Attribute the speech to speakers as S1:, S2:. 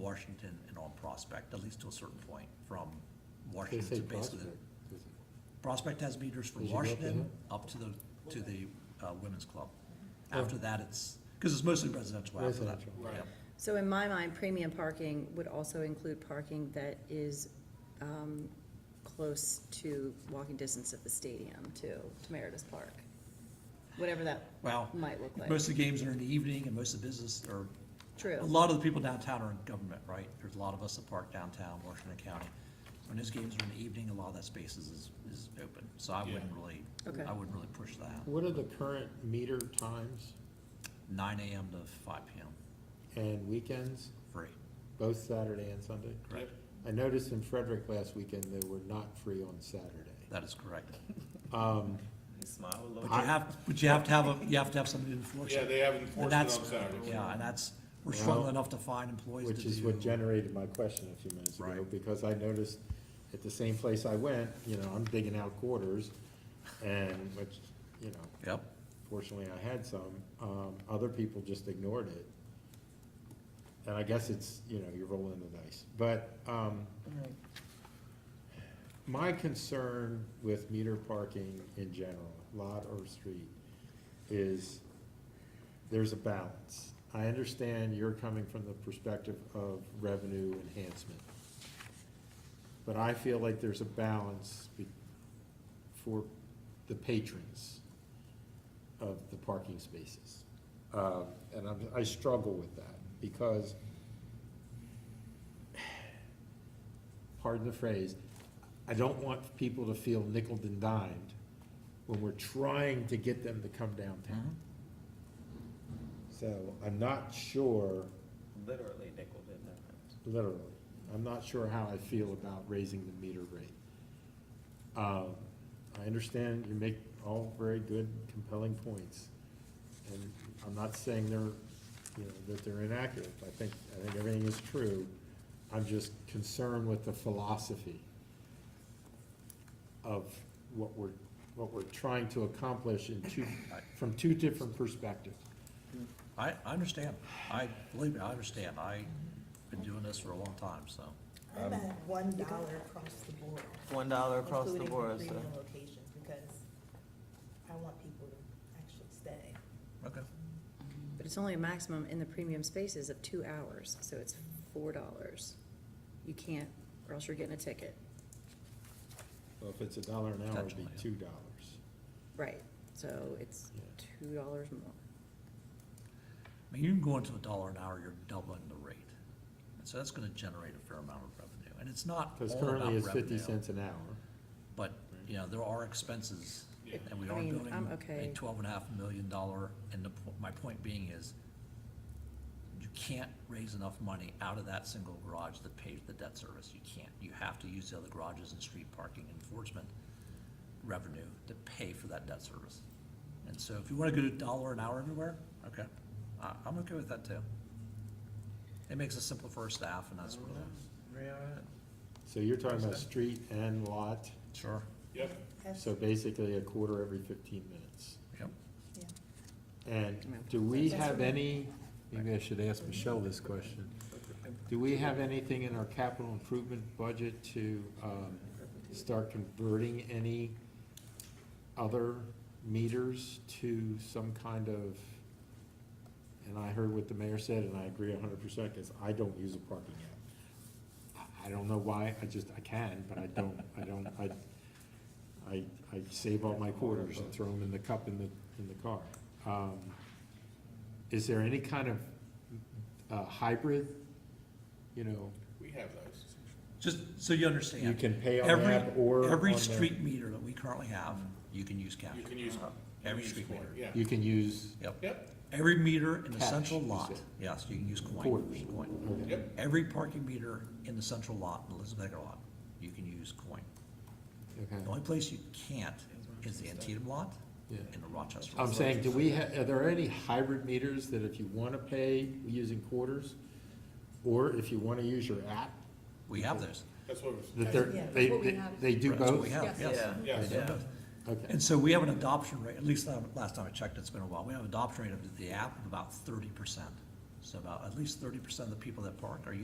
S1: Washington and on Prospect, at least to a certain point, from
S2: They
S1: Washington
S2: say
S1: to basically.
S2: prospect.
S1: Prospect has meters from
S2: Did you go up to
S1: Washington
S2: that?
S1: up to the, to the, uh, women's club.
S2: Oh.
S1: After that, it's, cause it's mostly residential after that.
S2: Residential.
S3: Right.
S1: Yep.
S4: So in my mind, premium parking would also include parking that is um, close to walking distance of the stadium to Meritus Park, whatever that
S1: Well,
S4: might look like.
S1: most of the games are in the evening and most of the business are, a
S4: True,
S1: lot of the people downtown are in government, right? There's a lot of us that park downtown Washington County. When those games are in the evening, a lot of that space is, is- is open, so I wouldn't
S3: Yeah.
S1: really,
S4: Okay.
S1: I wouldn't really push that.
S2: What are the current meter times
S1: Nine AM to five PM,
S2: and weekends,
S1: free,
S2: both Saturday and Sunday?
S1: correct?
S2: I noticed in Frederick last weekend, they were not free on Saturday.
S1: That is correct.
S2: Um,
S5: Smile a
S1: But
S5: little.
S1: you
S2: I-
S1: have, but you have to have a, you have to have somebody to enforce
S3: Yeah,
S1: it.
S3: they have
S1: And
S3: enforcement on
S1: that's,
S3: Saturdays.
S1: yeah, and that's, we're
S2: Well,
S1: struggling enough to find employees to do.
S2: Which is what generated my question a few minutes ago,
S1: Right.
S2: because I noticed at the same place I went, you know, I'm digging out quarters, and which, you know,
S1: Yep,
S2: fortunately I had some, um, other people just ignored it. And I guess it's, you know, you're rolling the dice, but, um, my concern with meter parking in general, lot or street, is there's a balance. I understand you're coming from the perspective of revenue enhancement. But I feel like there's a balance be- for the patrons of the parking spaces. Um, And I'm, I struggle with that because, pardon the phrase, I don't want people to feel nickel and dimed when we're trying to get them to come
S1: Mm-hmm.
S2: downtown. So I'm not sure,
S5: Literally nickel in that.
S2: literally, I'm not sure how I feel about raising the meter rate. Um, I understand you make all very good compelling points, and I'm not saying they're, you know, that they're inaccurate. I think, I think everything is true. I'm just concerned with the philosophy of what we're, what we're trying to accomplish in two, from two different perspectives.
S1: I, I understand, I, believe me, I understand, I've been doing this for a long time, so.
S6: I'm at one dollar across the board.
S5: One dollar across the
S6: including for
S5: board, so.
S6: premium locations, because I want people to actually stay.
S1: Okay.
S4: but it's only a maximum in the premium spaces of two hours, so it's four dollars. You can't, or else you're getting a ticket.
S2: Well, if it's a dollar an hour, it'd be two
S1: Potentially,
S2: dollars.
S4: Right, so it's two dollars more.
S1: I mean, you can go into a dollar an hour, you're doubling the rate. And so that's gonna generate a fair amount of revenue, and it's not all
S2: Because
S1: about
S2: currently it's fifty
S1: revenue,
S2: cents an hour.
S1: but, you know, there are expenses,
S3: Yeah.
S1: and we
S4: I
S1: are
S4: mean,
S1: building
S4: I'm
S1: a
S4: okay.
S1: twelve and a half million dollar, and the, po- my point being is, you can't raise enough money out of that single garage that pays the debt service, you can't, you have to use the other garages and street parking enforcement revenue to pay for that debt service. And so if you wanna go to a dollar an hour everywhere, okay, I, I'm okay with that too. It makes it simple for our staff and that's really,
S2: So you're talking about street and lot,
S1: sure,
S3: Yep,
S6: That's-
S2: so basically a quarter every fifteen minutes.
S1: yep.
S6: yeah.
S2: And do we
S6: That's
S2: have
S6: right.
S2: any, maybe I should ask Michelle this question. Do we have anything in our capital improvement budget to, um, start converting any other meters to some kind of, and I heard what the mayor said, and I agree hundred percent, cause I don't use a parking app. I, I don't know why, I just, I can, but I don't, I don't, I, I, I save all my quarters and throw them in the cup in the, in the car. Um, Is there any kind of, uh, hybrid, you know,
S3: we have those.
S1: Just so you understand.
S2: you can pay on the
S1: Every-
S2: app or
S1: Every
S2: on the-
S1: street meter that we currently have, you can use cash.
S3: You can use.
S1: Uh-huh. Every
S3: you can use
S1: street
S3: coin,
S1: meter.
S3: Yeah,
S2: You can use,
S1: Yep.
S3: yep,
S1: Every meter in the
S2: Cash,
S1: central
S2: you
S1: lot,
S2: said.
S1: yes, you can use coin.
S2: Quarters.
S1: Coin.
S2: okay.
S3: yep,
S1: Every parking meter in the central lot, in Elizabeth Ecker lot, you can use coin.
S2: okay.
S1: The only place you can't is the Antietam lot
S2: Yeah.
S1: and the Rochester. lot.
S2: I'm saying, do we, ha- are there any hybrid meters that if you wanna pay using quarters, or if you wanna use your app,
S1: We have those.
S3: that's what it was.
S2: that they're,
S6: Yeah, that's
S2: they,
S7: what we
S2: they-
S7: have.
S2: they do
S1: That's what
S2: both?
S1: we have,
S7: Yes.
S1: yes.
S3: Yeah.
S1: They do
S5: Yeah.
S1: both.
S2: Okay,
S1: And so we have an adoption rate, at least uh, last time I checked, it's been a while, we have an adoption rate of the app of about thirty percent. So about, at least thirty percent of the people that park are